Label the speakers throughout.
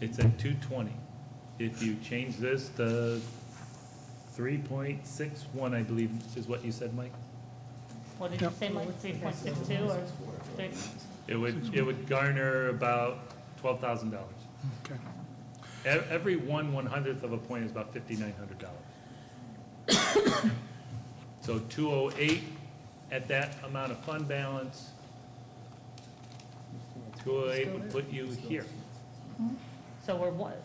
Speaker 1: it's at two twenty. If you change this to three point six one, I believe, is what you said, Mike?
Speaker 2: What did you say, Mike, three point six two or three?
Speaker 1: It would, it would garner about twelve thousand dollars. E,
Speaker 3: Okay.
Speaker 1: Every one one hundredth of a point is about fifty-nine hundred dollars. So two oh eight at that amount of fund balance, two oh eight would put you here,
Speaker 2: So we're what,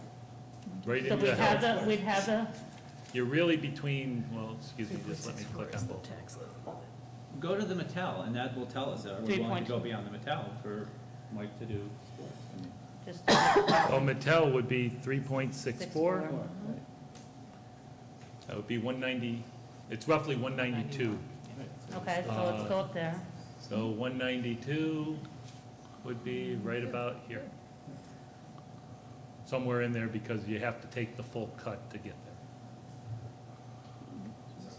Speaker 1: right
Speaker 2: so
Speaker 1: into
Speaker 2: we'd
Speaker 1: the
Speaker 2: have
Speaker 1: house.
Speaker 2: the, we'd have the,
Speaker 1: You're really between, well, excuse me, just let me click on both.
Speaker 4: Go to the Mattel, and that will tell us, are we willing to
Speaker 2: 3.2.
Speaker 4: go beyond the Mattel for Mike to do sports? I mean,
Speaker 2: just
Speaker 1: Oh, Mattel would be three point six four,
Speaker 2: Six, four.
Speaker 1: that would be one ninety, it's roughly one ninety-two.
Speaker 2: Okay, so
Speaker 1: Uh,
Speaker 2: let's go up there.
Speaker 1: So one ninety-two would be right about here. Somewhere in there because you have to take the full cut to get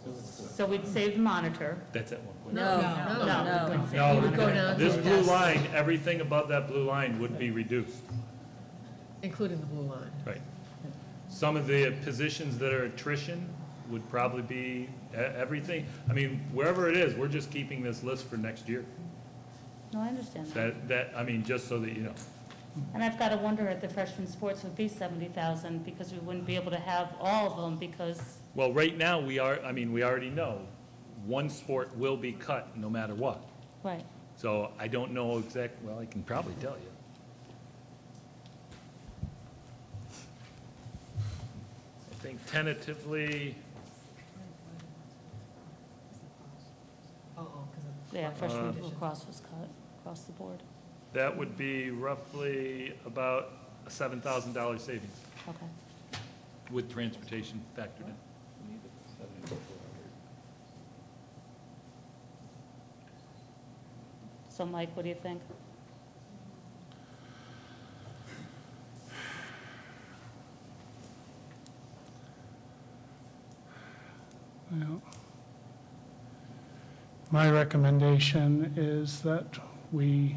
Speaker 1: there.
Speaker 2: So we'd save the monitor.
Speaker 1: That's at one point.
Speaker 5: No,
Speaker 2: No,
Speaker 5: no,
Speaker 2: we
Speaker 5: no.
Speaker 2: wouldn't save
Speaker 1: No,
Speaker 2: the
Speaker 5: We'd go
Speaker 2: monitor.
Speaker 5: down
Speaker 1: this
Speaker 5: to-
Speaker 1: blue line, everything above that blue line would be reduced.
Speaker 5: Including the blue line.
Speaker 1: Right. Some of the positions that are attrition would probably be e- everything. I mean, wherever it is, we're just keeping this list for next year.
Speaker 2: No, I understand that.
Speaker 1: That, that, I mean, just so that you know.
Speaker 2: And I've got to wonder if the freshman sports would be seventy thousand because we wouldn't be able to have all of them because,
Speaker 1: Well, right now, we are, I mean, we already know, one sport will be cut no matter what.
Speaker 2: right.
Speaker 1: So I don't know exact, well, I can probably tell you. I think tentatively,
Speaker 5: Oh, because of.
Speaker 2: Yeah, freshman
Speaker 1: Uh,
Speaker 2: lacrosse was cut across the board.
Speaker 1: that would be roughly about a $7,000 savings
Speaker 2: Okay.
Speaker 1: with transportation factored in.
Speaker 4: we need the 7400.
Speaker 2: So Mike, what do you think?
Speaker 3: Yeah. My recommendation is that we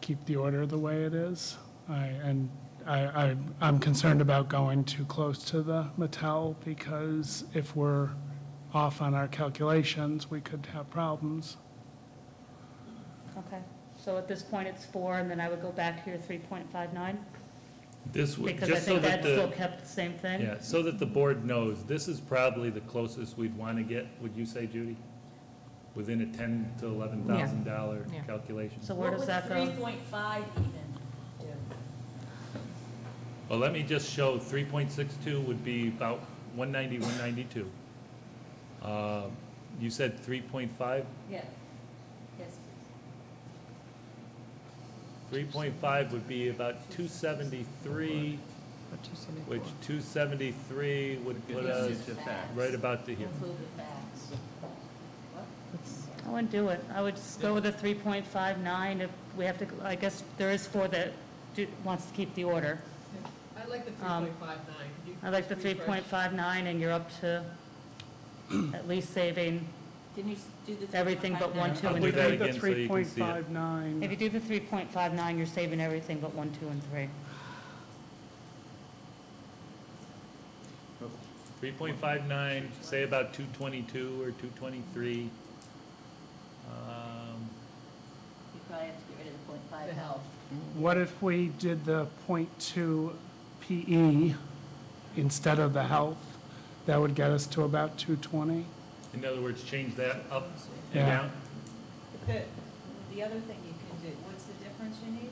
Speaker 3: keep the order the way it is. I, and I, I, I'm concerned about going too close to the Mattel because if we're off on our calculations, we could have problems.
Speaker 2: Okay. So at this point, it's four, and then I would go back to your three point five nine?
Speaker 1: This would,
Speaker 2: Because I
Speaker 1: just so
Speaker 2: think
Speaker 1: that
Speaker 2: that
Speaker 1: the.
Speaker 2: still kept the same thing?
Speaker 1: Yeah, so that the board knows, this is probably the closest we'd want to get, would you say, Judy? Within a ten to eleven thousand dollar
Speaker 5: Yeah.
Speaker 1: calculation?
Speaker 2: So where does that go?
Speaker 6: three point five even do?
Speaker 1: Well, let me just show, three point six two would be about 190, 192. Uh, You said three point five?
Speaker 6: Yeah. Yes.
Speaker 1: Three point five would be about two seventy-three, which two seventy-three would put us
Speaker 4: It's a fact.
Speaker 1: right about to here.
Speaker 6: Include the facts.
Speaker 2: I wouldn't do it. I would just go with a three point five nine if we have to, I guess there is four that do- wants to keep the order.
Speaker 5: I like the three
Speaker 2: Um,
Speaker 5: point five nine.
Speaker 2: I like the three point five nine, and you're up to at least saving,
Speaker 6: Didn't you s- do the?
Speaker 2: Everything but
Speaker 6: 3.59?
Speaker 2: one, two,
Speaker 1: I'll
Speaker 2: and
Speaker 1: do that
Speaker 2: three.
Speaker 1: again so you can see it.
Speaker 3: 3.59.
Speaker 2: if you do the three point five nine, you're saving everything but one, two, and three.
Speaker 1: Three point five nine, say about two twenty-two or two twenty-three. Um,
Speaker 6: You probably have to get rid of the point five
Speaker 5: The
Speaker 6: health.
Speaker 3: What if we did the .2 PE E instead of the health? That would get us to about two twenty.
Speaker 1: In other words, change that up and
Speaker 3: Yeah.
Speaker 1: down.
Speaker 7: The, the other thing you can do, what's the difference you need?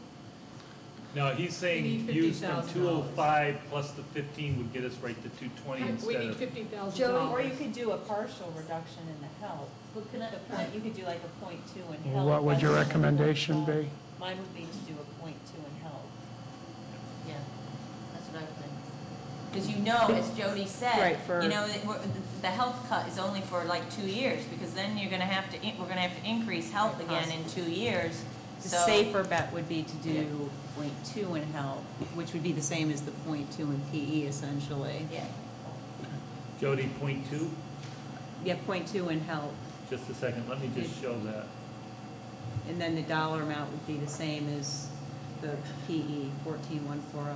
Speaker 1: No, he's saying
Speaker 5: need
Speaker 1: use from
Speaker 5: $50,000.
Speaker 1: two oh five plus the fifteen would get us right to two twenty
Speaker 5: We
Speaker 1: instead
Speaker 5: need
Speaker 1: of.
Speaker 5: fifty thousand
Speaker 7: Joe, or
Speaker 5: dollars.
Speaker 7: you could do a partial reduction in the health.
Speaker 6: But can I,
Speaker 7: The point, you could do like a point two in health.
Speaker 3: What would your
Speaker 7: rather than a point
Speaker 3: recommendation
Speaker 7: five.
Speaker 3: be?
Speaker 7: Mine would be to do a point two in health.
Speaker 6: yeah, that's what I would think. Because you know, as Jody said,
Speaker 5: Right, for-
Speaker 6: you know, that we're- the- the health cut is only for like two years, because then you're gonna have to, in- we're gonna have to increase health again in two years,
Speaker 8: The
Speaker 6: so.
Speaker 8: safer bet would be to
Speaker 6: Yeah.
Speaker 8: do point two in health, which would be the same as the point two in PE essentially.
Speaker 6: Yeah.
Speaker 1: Jody, point two,
Speaker 8: Yeah, point two in health,
Speaker 1: just a second, let me just show that.
Speaker 8: and then the dollar amount would be the same as oh.
Speaker 6: the PE 14140